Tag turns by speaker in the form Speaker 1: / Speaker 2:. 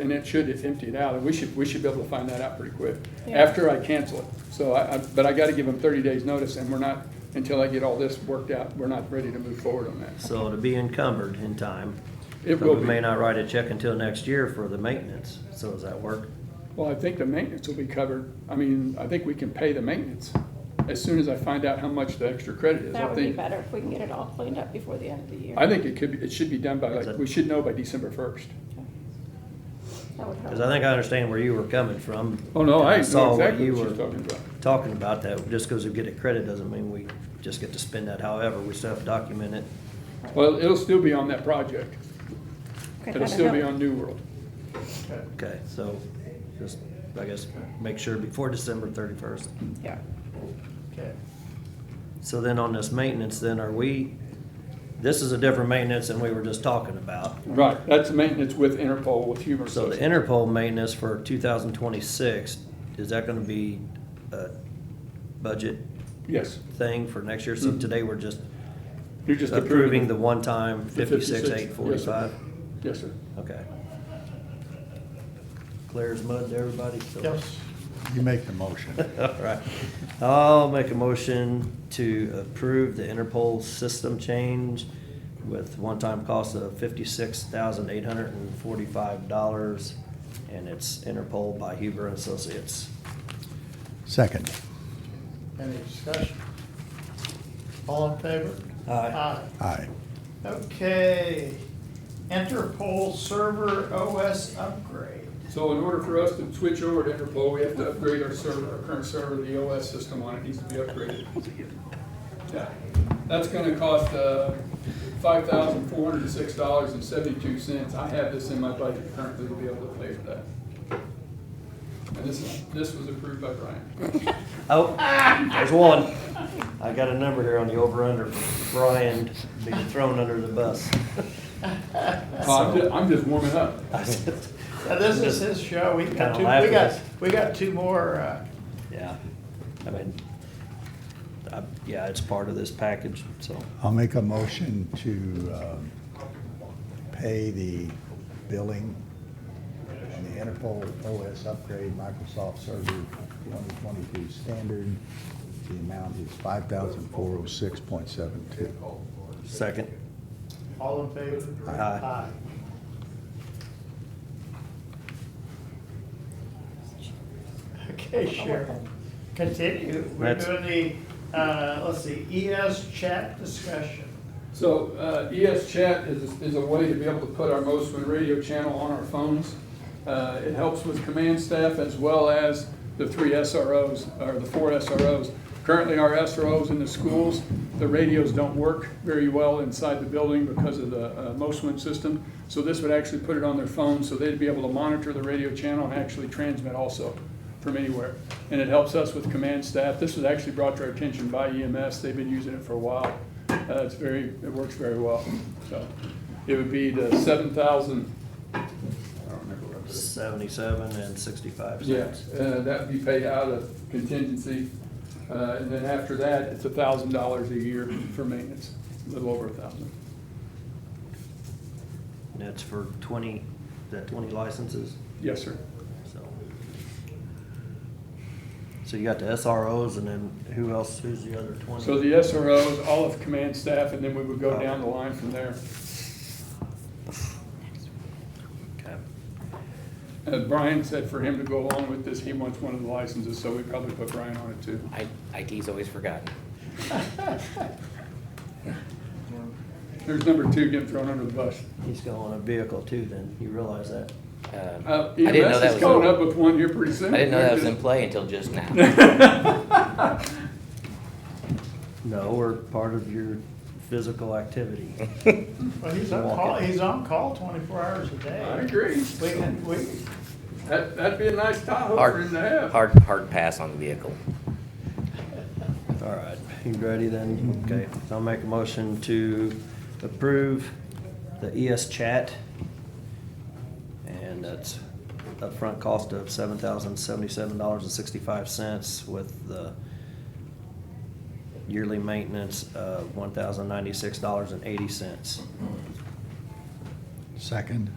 Speaker 1: And it should, it's emptied out, and we should, we should be able to find that out pretty quick,
Speaker 2: Yeah.
Speaker 1: after I cancel it. So I, I, but I gotta give them thirty days' notice, and we're not, until I get all this worked out, we're not ready to move forward on that.
Speaker 3: So to be encumbered in time.
Speaker 1: It
Speaker 3: But
Speaker 1: will
Speaker 3: We may
Speaker 1: be.
Speaker 3: not write a check until next year for the maintenance, so does that work?
Speaker 1: Well, I think the maintenance will be covered, I mean, I think we can pay the maintenance as soon as I find out how much the extra credit is,
Speaker 2: That
Speaker 1: I
Speaker 2: would be
Speaker 1: think.
Speaker 2: better if we can get it all cleaned up before the end of the year.
Speaker 1: I think it could, be it should be done by,
Speaker 3: Is
Speaker 1: like,
Speaker 3: it-
Speaker 1: we should know by December first.
Speaker 2: That would
Speaker 3: Because I
Speaker 2: help.
Speaker 3: think I understand where you were coming from.
Speaker 1: Oh, no, I
Speaker 3: saw
Speaker 1: know exactly
Speaker 3: you
Speaker 1: what she's
Speaker 3: were
Speaker 1: talking about.
Speaker 3: Talking about that, just because we get a credit doesn't mean we just get to spend that however, we still have to document it.
Speaker 1: Well, it'll still be on that project,
Speaker 2: Okay,
Speaker 1: it'll
Speaker 2: that'd
Speaker 1: still be
Speaker 2: help.
Speaker 1: on New World.
Speaker 3: Okay, so just, I guess, make sure before December thirty-first.
Speaker 2: Yeah.
Speaker 4: Okay.
Speaker 3: So then on this maintenance, then are we, this is a different maintenance than we were just talking about.
Speaker 1: Right, that's maintenance with Interpol, with Humor
Speaker 3: So the
Speaker 1: Associates.
Speaker 3: Interpol maintenance for two thousand twenty-six, is that gonna be a budget
Speaker 1: Yes,
Speaker 3: thing for next year? So today we're just
Speaker 1: you're just
Speaker 3: approving
Speaker 1: approving
Speaker 3: the one-time fifty-six, eight
Speaker 1: Yes, sir.
Speaker 3: forty-five?
Speaker 1: Yes, sir.
Speaker 3: Okay. Clear as mud to everybody? So-
Speaker 4: Yes.
Speaker 5: You make the motion.
Speaker 3: All right. I'll make a motion to approve the Interpol system change with one-time cost of fifty-six thousand eight hundred and forty-five dollars, and it's Interpol by Huber and Associates.
Speaker 5: Second.
Speaker 4: Any discussion? All in favor?
Speaker 3: Aye.
Speaker 5: Aye.
Speaker 4: Okay. Interpol server OS upgrade.
Speaker 1: So in order for us to switch over to Interpol, we have to upgrade our server, our current server, the OS system on it needs to be upgraded. Yeah, That's gonna cost, uh, five thousand four hundred and six dollars and seventy-two cents. I have this in my budget currently to be able to pay for that. And this is, this was approved by Brian.
Speaker 3: Oh, there's one. I got a number here on the over-under for Brian being thrown under the bus.
Speaker 1: Oh, I'm ju- I'm just warming up.
Speaker 4: Now, this is his show. We've got
Speaker 3: Kinda
Speaker 4: two, we
Speaker 3: laughing.
Speaker 4: got, we got two more, uh,
Speaker 3: Yeah, I mean, I, yeah, it's part of this package, so.
Speaker 5: I'll make a motion to um, pay the billing on the Interpol OS upgrade Microsoft Server 2022 standard. The amount is 5,406.72.
Speaker 3: Second.
Speaker 4: all in favor?
Speaker 5: Aye.
Speaker 4: Okay, Cheryl, continue. We're
Speaker 3: That's-
Speaker 4: doing the, uh, let's see, ES chat discussion.
Speaker 1: So uh, ES Chat is, is a way to be able to put our Mosman radio channel on our phones. Uh, It helps with command staff as well as the three SROs, or the four SROs. Currently, our SROs in the schools, the radios don't work very well inside the building because of the uh, Mosman system. So this would actually put it on their phone, so they'd be able to monitor the radio channel and actually transmit also from anywhere. And it helps us with command staff. This was actually brought to our attention by EMS. They've been using it for a while. Uh, It's very, it works very well. So it would be the seven thousand, I don't remember what it is.
Speaker 3: Seventy-seven and sixty-five
Speaker 1: Yeah,
Speaker 3: cents.
Speaker 1: uh, that'd be paid out of contingency. Uh, And then after that, it's a thousand dollars a year for maintenance, a little over a thousand.
Speaker 3: And that's for twenty, is that twenty licenses,
Speaker 1: Yes, sir.
Speaker 3: so. So you got the SROs and then who else, who's the other twenty?
Speaker 1: So the SROs, all of command staff, and then we would go down the line from there.
Speaker 3: Okay.
Speaker 1: Uh, Brian said for him to go along with this, he wants one of the licenses, so we probably put Brian on it too.
Speaker 6: I, IT's always forgotten.
Speaker 1: There's number two getting thrown under the bus.
Speaker 3: He's going on a vehicle too then, you realize that?
Speaker 6: Um,
Speaker 1: Uh,
Speaker 6: I didn't know
Speaker 1: EMS
Speaker 6: that
Speaker 1: is
Speaker 6: was
Speaker 1: coming
Speaker 6: in-
Speaker 1: up with one here pretty soon.
Speaker 6: I didn't know that was in play until just now.
Speaker 3: No, we're part of your physical activity.
Speaker 4: Well, he's on
Speaker 3: Walk
Speaker 4: call,
Speaker 3: it.
Speaker 4: he's on call twenty-four hours a
Speaker 1: I
Speaker 4: day.
Speaker 1: agree.
Speaker 4: We can, we,
Speaker 1: That, that'd be a nice Tahoe for
Speaker 6: Hard,
Speaker 1: him to have.
Speaker 6: hard, hard pass on the vehicle.
Speaker 3: All right, you ready then? Okay, so I'll make a motion to approve the ES chat. And that's upfront cost of seven thousand seventy-seven dollars and sixty-five cents with the yearly maintenance of one thousand ninety-six dollars and eighty cents.
Speaker 5: Second.